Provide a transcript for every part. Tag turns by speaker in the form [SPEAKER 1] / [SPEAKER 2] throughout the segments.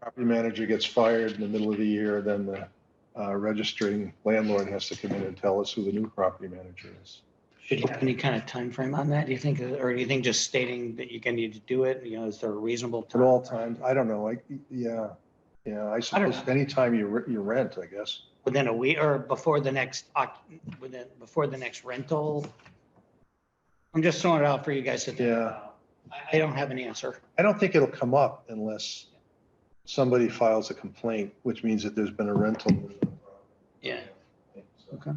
[SPEAKER 1] property manager gets fired in the middle of the year, then the uh, registering landlord has to come in and tell us who the new property manager is.
[SPEAKER 2] Should you have any kind of time frame on that, do you think, or do you think just stating that you're gonna need to do it, you know, is there a reasonable?
[SPEAKER 1] At
[SPEAKER 2] time?
[SPEAKER 1] all times, I don't know, like, yeah, yeah, I suppose anytime you, re- you rent, I guess.
[SPEAKER 2] Within a week or before the next, oc- within, before the next rental? I'm just throwing it out for you guys to think
[SPEAKER 1] Yeah.
[SPEAKER 2] about. I, I don't have an answer.
[SPEAKER 1] I don't think it'll come up unless somebody files a complaint, which means that there's been a rental.
[SPEAKER 2] Yeah. Okay.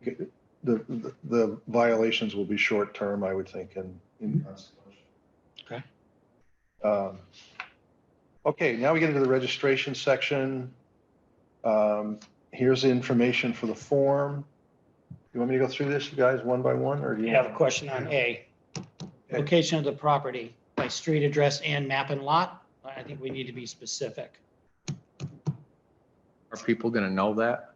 [SPEAKER 1] Okay, The, the- the violations will be short-term, I would think, and. and-
[SPEAKER 2] Okay.
[SPEAKER 1] Um, Okay, now we get into the registration section. Um, Here's the information for the form. You want me to go through this, you guys, one by one, or? do
[SPEAKER 2] You
[SPEAKER 1] you
[SPEAKER 2] have a question on A. Location of the property by street address and map and lot? I think we need to be specific.
[SPEAKER 3] Are people gonna know that?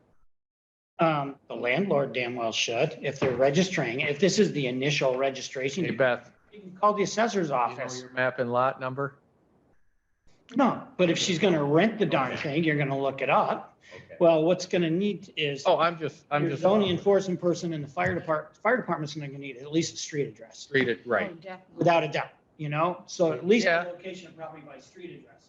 [SPEAKER 2] Um, the landlord damn well should, if they're registering, if this is the initial registration,
[SPEAKER 3] Hey,
[SPEAKER 2] you
[SPEAKER 3] Beth,
[SPEAKER 2] can call the assessor's
[SPEAKER 3] you know
[SPEAKER 2] office.
[SPEAKER 3] your map and lot number?
[SPEAKER 2] No, but if she's gonna rent the darn thing, you're gonna look it up.
[SPEAKER 3] Okay.
[SPEAKER 2] Well, what's gonna need is
[SPEAKER 3] Oh, I'm just, I'm
[SPEAKER 2] your
[SPEAKER 3] just.
[SPEAKER 2] zoning enforcement person and the fire department, fire department's gonna need at least a street address,
[SPEAKER 3] Read it right.
[SPEAKER 4] Oh, definitely.
[SPEAKER 2] without a doubt, you know? So at least
[SPEAKER 3] Yeah.
[SPEAKER 2] the location probably by street address.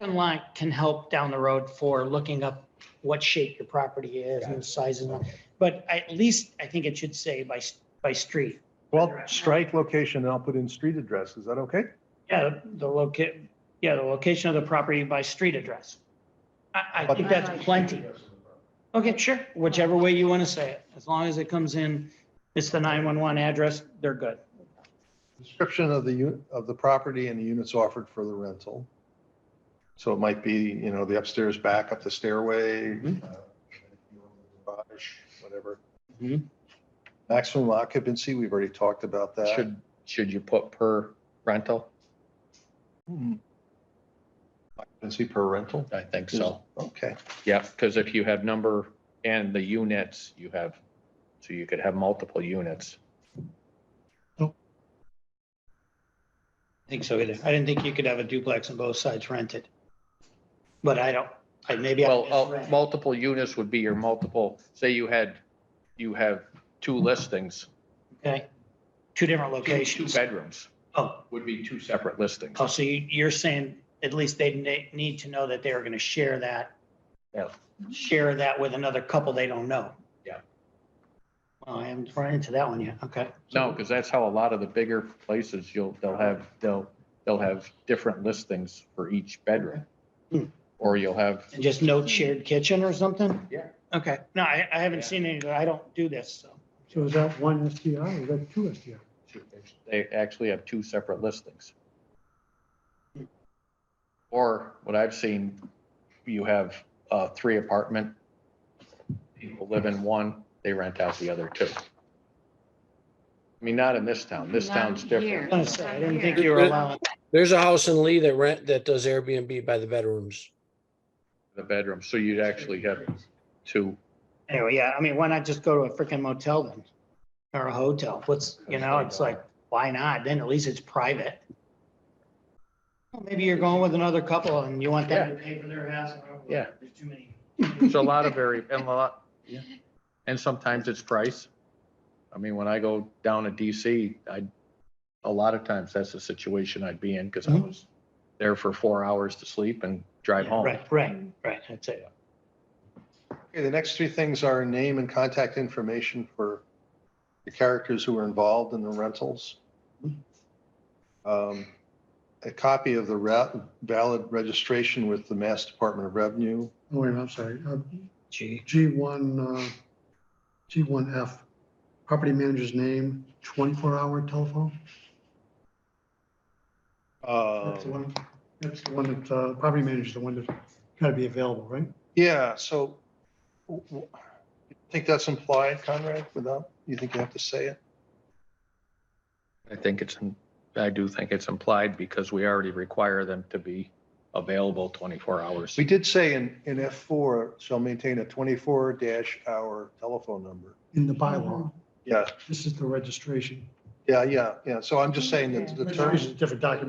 [SPEAKER 2] And line can help down the road for looking up what shape your property is and the size and all. But at least I think it should say by, by street.
[SPEAKER 1] Well, strike location, and I'll put in street address, is that okay?
[SPEAKER 2] Yeah, the locate, yeah, the location of the property by street address. I, I
[SPEAKER 1] But-
[SPEAKER 2] think that's plenty. Okay, sure, whichever way you want to say it, as long as it comes in, it's the 911 address, they're good.
[SPEAKER 1] Description of the, u- of the property and the units offered for the rental. So it might be, you know, the upstairs back up the stairway,
[SPEAKER 2] Mm-hmm.
[SPEAKER 1] uh, garage, whatever.
[SPEAKER 2] Mhm.
[SPEAKER 1] Maximum occupancy, we've already talked about that.
[SPEAKER 3] Should, should you put per rental?
[SPEAKER 1] Hmm. Occupancy per rental?
[SPEAKER 3] I think so.
[SPEAKER 1] Okay,
[SPEAKER 3] Yeah, because if you have number and the units, you have, so you could have multiple units.
[SPEAKER 2] I think so either. I didn't think you could have a duplex on both sides rented. But I don't, I maybe. I
[SPEAKER 3] Well, uh,
[SPEAKER 2] misread.
[SPEAKER 3] multiple units would be your multiple, say you had, you have two listings,
[SPEAKER 2] Okay, two different
[SPEAKER 3] two two
[SPEAKER 2] locations.
[SPEAKER 3] bedrooms
[SPEAKER 2] Oh,
[SPEAKER 3] would be two separate listings.
[SPEAKER 2] oh, so you- you're saying at least they ne- need to know that they are going to share that.
[SPEAKER 3] Yeah.
[SPEAKER 2] Share that with another couple they don't know.
[SPEAKER 3] Yeah.
[SPEAKER 2] Well, I haven't run into that one yet. Okay.
[SPEAKER 3] No, because that's how a lot of the bigger places, you'll, they'll have, they'll, they'll have different listings for each bedroom.
[SPEAKER 2] Hmm.
[SPEAKER 3] Or you'll have,
[SPEAKER 2] And just no shared kitchen or something?
[SPEAKER 3] Yeah.
[SPEAKER 2] Okay, no, I, I haven't
[SPEAKER 3] Yeah.
[SPEAKER 2] seen any, I don't do this, so.
[SPEAKER 5] So is that one STR or is that two STR?
[SPEAKER 3] they actually have two separate listings. Or what I've seen, you have, uh, three apartment. People live in one, they rent out the other two. I mean, not in this town. This
[SPEAKER 4] Not
[SPEAKER 3] town's
[SPEAKER 4] here.
[SPEAKER 2] I
[SPEAKER 3] different.
[SPEAKER 2] was gonna say, I didn't think
[SPEAKER 4] Here.
[SPEAKER 2] you were allowing,
[SPEAKER 6] There's a house in Lee that rent, that does Airbnb by the bedrooms.
[SPEAKER 3] The bedroom, so you'd actually have two.
[SPEAKER 2] anyway, yeah, I mean, why not just go to a freaking motel then? Or a hotel, what's, you know, it's like, why not? Then at least it's private. Well, Maybe you're going with another couple and you want them to pay for their house.
[SPEAKER 3] Yeah.
[SPEAKER 2] There's too many.
[SPEAKER 3] So a lot of very, and a lot, and sometimes it's price. I mean, when I go down to DC, I, a lot of times that's the situation I'd be in because I
[SPEAKER 2] Mhm.
[SPEAKER 3] was there for four hours to sleep and drive home.
[SPEAKER 2] Right, right, right, that's it.
[SPEAKER 1] Okay, the next three things are name and contact information for the characters who were involved in the rentals. Um, A copy of the ra- valid registration with the Mass Department of Revenue.
[SPEAKER 5] Oh, wait, I'm sorry. Uh,
[SPEAKER 2] Gee.
[SPEAKER 5] G1, uh, G1F, property manager's name, 24-hour telephone. That's the
[SPEAKER 1] Um,
[SPEAKER 5] one, that's the one that, uh, property manager's the one that's got to be available, right?
[SPEAKER 1] Yeah, so w- w- you think that's implied, Conrad, without, you think you have to say it?
[SPEAKER 3] I think it's, I do think it's implied because we already require them to be available twenty-four hours.
[SPEAKER 1] We did say in, in F4, shall maintain a 24 dash hour telephone number.
[SPEAKER 5] In the bylaw.
[SPEAKER 1] Yeah,
[SPEAKER 5] This is the registration.
[SPEAKER 1] yeah, yeah, yeah. So I'm just saying that the terms.
[SPEAKER 5] Registration is a different document